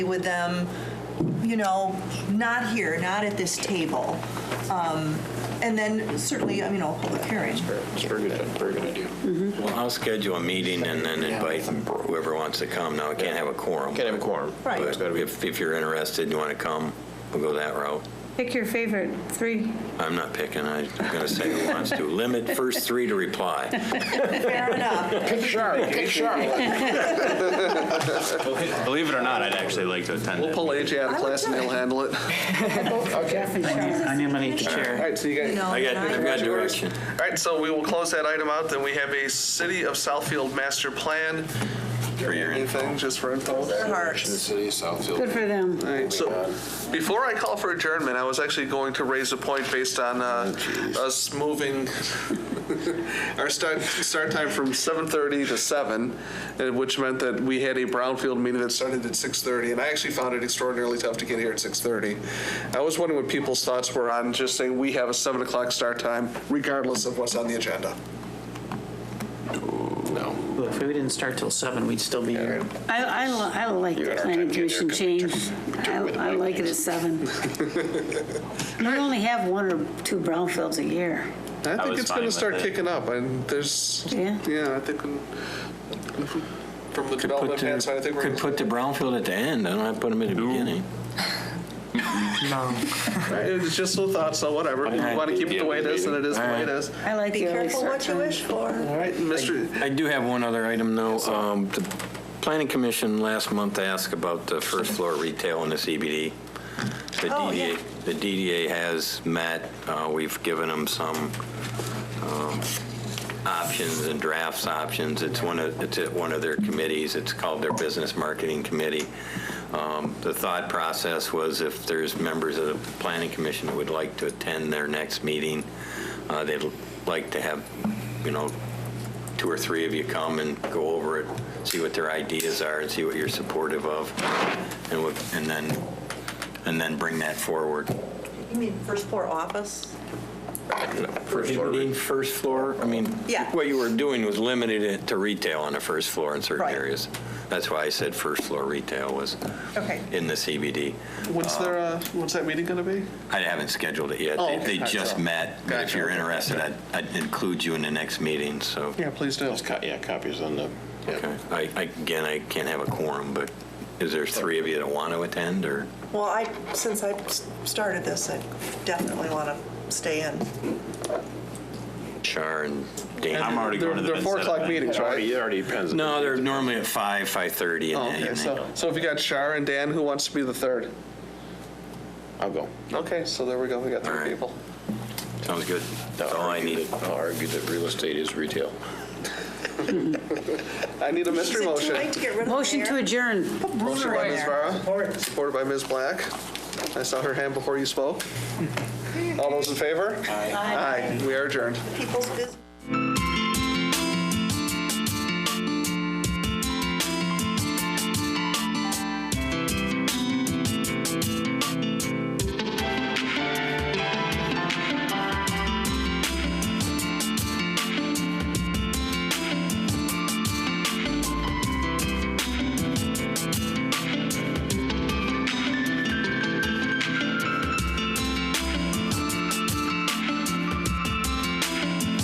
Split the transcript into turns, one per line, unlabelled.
with them, you know, not here, not at this table. Um, And then certainly, you know, public hearing.
That's what we're gonna, we're gonna do.
Well, I'll schedule a meeting and then invite whoever wants to come. Now, I can't have a quorum.
Can't have a quorum.
Right.
but
It's gotta be-
If, if you're interested and you want to come, we'll go that route.
Pick your favorite three.
I'm not picking, I'm going to say who wants to. Limit first three to reply.
Fair enough.
Pick sharp, pick sharp.
Believe it or not, I'd actually like to attend
We'll
it.
pull AJ out of class and he'll handle it. All
I need money to chair.
right, so you
You
guys.
know,
I got, I've got direction.
All right, so we will close that item out, then we have a City of Southfield Master Plan.
For your info.
Anything, just for info?
Their hearts.
city of Southfield.
Good for them.
All right, so before I call for adjournment, I was actually going to raise a point based on uh, us moving our start, start time from 7:30 to 7, uh, which meant that we had a Brownfield meeting that started at 6:30, and I actually found it extraordinarily tough to get here at 6:30. I was wondering what people's thoughts were on just saying we have a 7 o'clock start time regardless of what's on the agenda.
No.
Well, If we didn't start till seven, we'd still be here.
I, I, li- I like the planning commission change. I, I like it at seven. We only have one or two brownfields a year.
I think
was
it's going
fine
to
with
start
it.
kicking up, and there's,
Yeah.
yeah, I think when- from the
Put
development plan side, I
the-
think we're.
Could put the brownfield at the end, I don't have to put them at the beginning.
It's just little thoughts on whatever. If you want to keep it the way it is, then it is the way it is.
I like
Be
the early
careful
start
what you
time.
wish for.
All right, Mr.
I do have one other item, though. Um, The planning commission last month asked about the first floor retail in the CBD. The
Oh,
DDA,
yeah.
the DDA has met, Uh, we've given them some um, options and drafts options. It's one of, it's at one of their committees, it's called their Business Marketing Committee. Um, The thought process was if there's members of the planning commission that would like to attend their next meeting, uh, they'd like to have, you know, two or three of you come and go over it, see what their ideas are, and see what you're supportive of, and what- and then, and then bring that forward.
You mean first floor office?
First floor.
You mean First floor, I mean,
Yeah.
what you were doing was limited it to retail on the first floor in certain
Right.
areas. That's why I said first floor retail was
Okay.
in the CBD.
What's their, uh, what's that meeting going to be?
I haven't scheduled it yet.
Oh,
They-
okay.
They
All right,
just
so-
met, but if
Gotcha.
you're interested, I'd- I'd include you in the next meeting, so.
Yeah, please do.
Yeah, copies on the, yeah.
Okay. I, I- again, I can't have a quorum, but is there three of you that want to attend, or?
Well, I, since I s- started this, I definitely want to stay in.
Char and Dan.
I'm already
They're
going to the.
they're four
Vincent Oh,
o'clock
event.
meetings, right?
It already depends.
No, they're normally at five, five-thirty in
Oh,
the
okay,
evening.
so, so if you got Shar and Dan, who wants to be the third?
I'll go.
Okay, so there we go, we got
All
three
right.
people.
Sounds good. That's all I need.
I'll argue that real estate is retail.
I need a mystery
Is it too late
motion.
to get rid of the
Motion to
mayor?
adjourn.
Put Bruner
Motion by
in
Ms.
there.
Vara, supported by Ms. Black. I saw her hand before you spoke. All those in favor? Aye. Aye, we are adjourned.
People's business.